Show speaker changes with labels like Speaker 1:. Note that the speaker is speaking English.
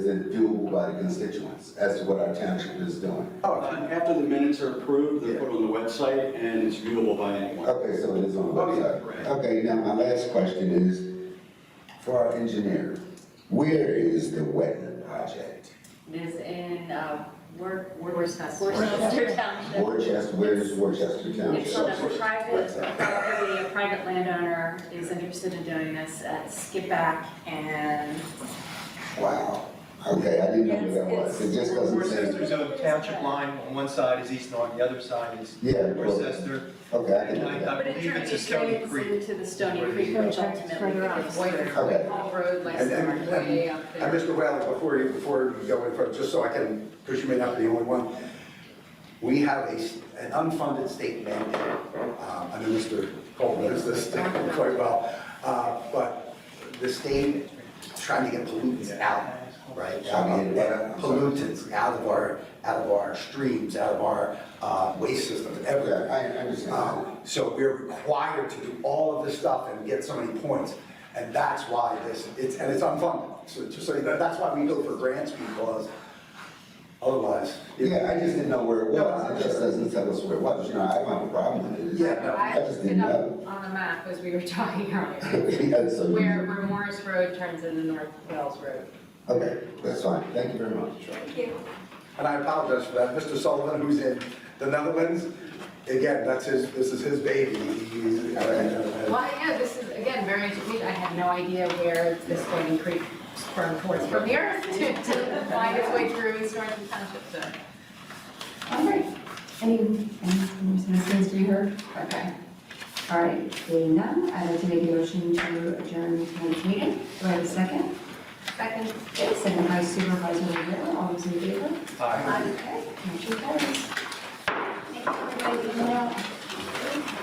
Speaker 1: isn't doable by the constituents as to what our township is doing.
Speaker 2: Uh, After the minutes are approved, they're put on the website, and it's viewable by anyone.
Speaker 1: Okay, so it is on the
Speaker 2: Oh, yeah,
Speaker 1: website.
Speaker 2: right.
Speaker 1: Okay, now my last question is, for our engineer, where is the wetland project?
Speaker 3: Is in, uh, Wor- Wor-
Speaker 4: Worcester.
Speaker 3: Worcester Township.
Speaker 1: Worcester, where is Worcester
Speaker 3: It's on a
Speaker 1: Township?
Speaker 3: private property, a private landowner is interested in doing this at Skip Back and.
Speaker 1: Wow, okay, I didn't know where that was, it just doesn't say.
Speaker 5: Worcester's own township line, on one side is East Norton, the other side is
Speaker 1: Yeah. well,
Speaker 5: Worcester.
Speaker 1: Okay, I can do that.
Speaker 5: I believe it's a Stony
Speaker 3: But it
Speaker 5: Creek.
Speaker 3: drains into the Stony Creek, which ultimately
Speaker 4: Further up.
Speaker 3: becomes Boyer
Speaker 1: Okay.
Speaker 3: Road, like
Speaker 6: And- and-
Speaker 3: somewhere way up
Speaker 6: And
Speaker 3: there.
Speaker 6: Mr. Wells, before you, before you go in further, just so I can, because you may not be the only one, we have a, s- an unfunded state mandate. Um, I know Mr. Cole knows this quite well, uh, but the state trying to get pollutants out, right?
Speaker 1: Trying to get what?
Speaker 6: Pollutants out of our, out of our streams, out of our uh, waste systems,
Speaker 1: Okay,
Speaker 6: everything.
Speaker 1: I I understand.
Speaker 6: Um, So we're required to do all of this stuff and get so many points. And that's why this, it's, and it's unfunded. So just so you know, that's why we go for grants because otherwise.
Speaker 1: Yeah, I just didn't know where it
Speaker 6: No,
Speaker 1: was, it just doesn't tell us where it was, you know, I don't have a problem with it.
Speaker 6: Yeah, no.
Speaker 1: I
Speaker 4: I
Speaker 1: just
Speaker 4: put
Speaker 1: didn't
Speaker 4: up
Speaker 1: know.
Speaker 4: on the map as we were talking earlier,
Speaker 1: Yeah, so-
Speaker 4: where, where Morris Road turns into North Wales Road.
Speaker 1: Okay, that's fine, thank you very much.
Speaker 6: And I apologize for that. Mr. Sullivan, who's in the Netherlands, again, that's his, this is his baby. He's-
Speaker 4: Well, yeah, this is, again, very interesting, I had no idea where this Stony Creek sprung towards from here to, to find its way through East Orange Township, so.
Speaker 7: All right, any, any citizens to be heard? Okay. All right, seeing none, I'd like to make a motion to adjourn tonight's meeting. Do I have a second? Second. Okay, second by Supervisor Rivera, all those in favor?
Speaker 5: Aye.
Speaker 7: Okay, motion carries. Thank you, everybody, for coming out.